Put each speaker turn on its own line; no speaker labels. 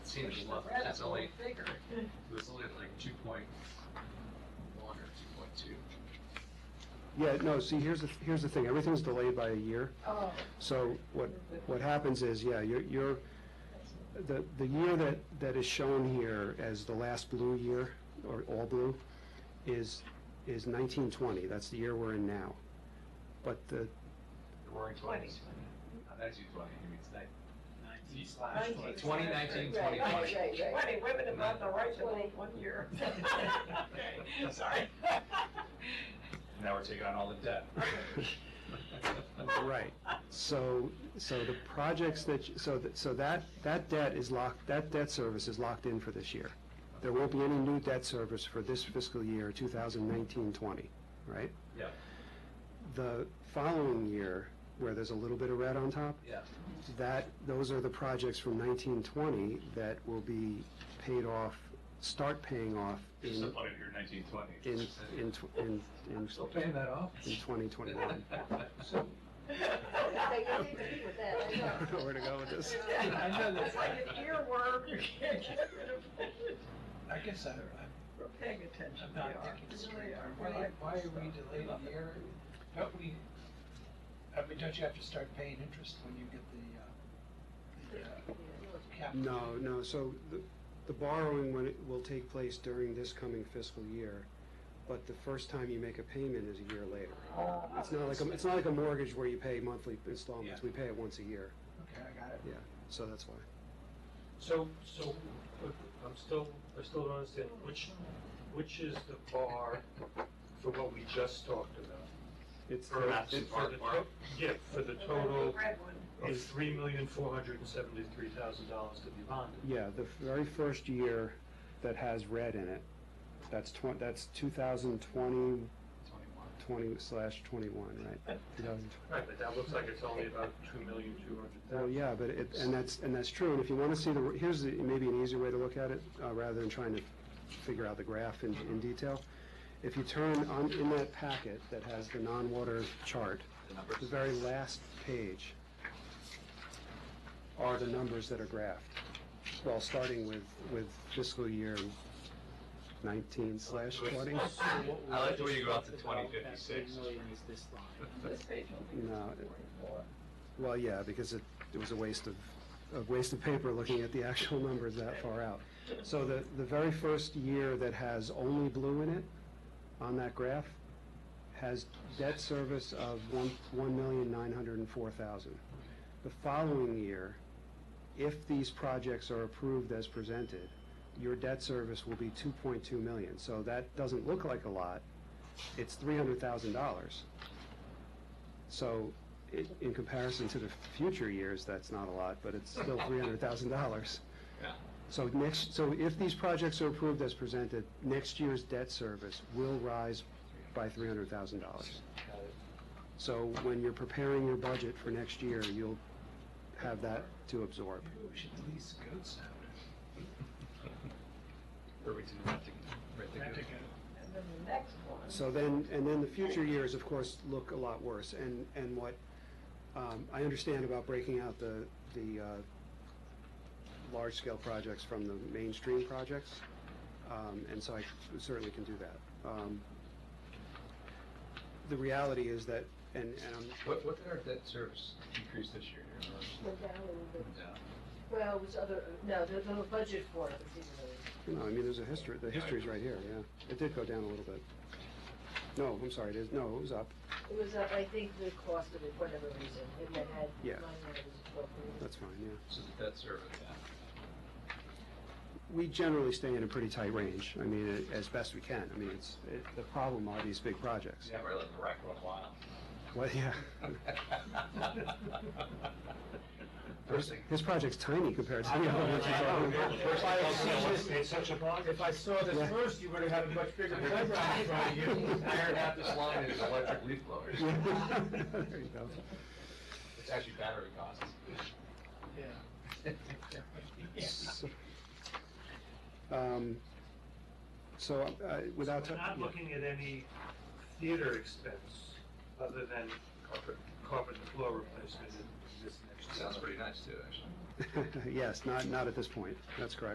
seen it before, but it's only bigger. It was only like two point one or two point two.
Yeah, no, see, here's the, here's the thing, everything's delayed by a year.
Oh,
So what, what happens is, yeah, you're, you're, the, the year that, that is shown here as the last blue year, or all blue, is, is nineteen twenty, that's the year we're in now. But the,
The roaring twenties. Not nineteen twenty, he means that. Nineteen slash
twenty.
Twenty nineteen, twenty
Right,
twenty.
right, right, right.
Twenty women have gotten the right to vote one year. Okay, sorry.
Now we're taking on all the debt.
right, so, so the projects that, you- so, that so that, that debt is locked, that debt service is locked in for this year. There won't be any new debt service for this fiscal year, 2019-20, right?
Yeah,
the following year, where there's a little bit of red on top,
yeah.
that, those are the projects from 1920 that will be paid off, start paying off
Just
in,
up under here, nineteen twenty.
in, in, tw- in, in
I'm still paying that off.
in 2021.
they need to keep with that, I
I
know.
don't know where to go with this.
I know that-
It's like an earworm, you can't get rid of it.
I guess I, I'm
We're paying attention.
I'm
We
not
are.
thinking straight. Are we- Why are we delayed a year? Don't we, I mean, don't you have to start paying interest when you get the, uh, the, uh, capital?
No, no, so the- the borrowing when it will take place during this coming fiscal year, but the first time you make a payment is a year later.
oh,
It's not like, a- it's not like a mortgage where you pay monthly installments,
Yeah.
we pay it once a year,
Okay, I got it.
yeah, so that's why.
So, so, but I'm still, I still don't understand, which, which is the bar for what we just talked about?
It's,
For- for the
bar.
to- Yeah, for the total
Red one.
is three million, four hundred and seventy-three thousand dollars to be bonded.
Yeah, the very first year that has red in it, that's twen, that's two thousand twenty, twenty slash twenty-one, right? 2020.
Right, but that looks like it's only about two million, two hundred
Well,
thousand.
Oh, yeah, but it, and that's, and that's true, and if you wanna see the, here's the, maybe an easier way to look at it, uh, rather than trying to figure out the graph in, in detail. If you turn on, in that packet that has the non-water chart, the very last page are the numbers that are graphed. Well, starting with, with fiscal year nineteen slash twenty.
I like the way you go out to twenty fifty-six.
This page will be
No, it-
forty-four.
Well, yeah, because it, it was a waste of, a waste of paper looking at the actual numbers that far out. So the, the very first year that has only blue in it, on that graph, has debt service of one, one million nine hundred and four thousand. The following year, if these projects are approved as presented, your debt service will be two point two million. So that doesn't look like a lot, it's three hundred thousand dollars. So i- in comparison to the future years, that's not a lot, but it's still $300,000.
Yeah.
So next, so if these projects are approved as presented, next year's debt service will rise by $300,000. So when you're preparing your budget for next year, you'll have that to absorb.
Maybe we should lease Goat Sound.
Or we do not think- right,
Rent a
think-
goat.
And then the next one.
So then, and then the future years, of course, look a lot worse. And, and what um, I understand about breaking out the, the uh, large-scale projects from the mainstream projects, um, and so I certainly can do that. Um, The reality is that, and, and I'm
What, what did our debt service increase this year? Do you remember?
Went down a little bit.
Yeah.
Well, it was other, no, the, the budget for it was even lower.
No, I mean, there's a history, the history's right here, yeah. It did go down a little bit. No, I'm sorry, it is, no, it was up,
It was up, I think, the cost of it, whatever reason, and that had.
Yeah.
line that was appropriate.
that's fine, yeah.
So the debt service, yeah.
we generally stay in a pretty tight range, I mean, as best we can. I mean, it's, it- the problem are these big projects.
Yeah, we're letting the rack run wild.
Well, yeah.
First thing.
His project's tiny compared to the other ones he's already
know.
If I saw this- If I saw this first, you would have had a much bigger playground in front of you.
Iron out this line is electric leaf blowers.
Yeah. There you go.
It's actually battery costs.
Yeah.
So, um, So, uh, without.
We're not
yeah.
looking at any theater expense other than carpet, carpet and floor replacement in this next year.
Sounds pretty nice too, actually.
Yes, not, not at this point, that's correct.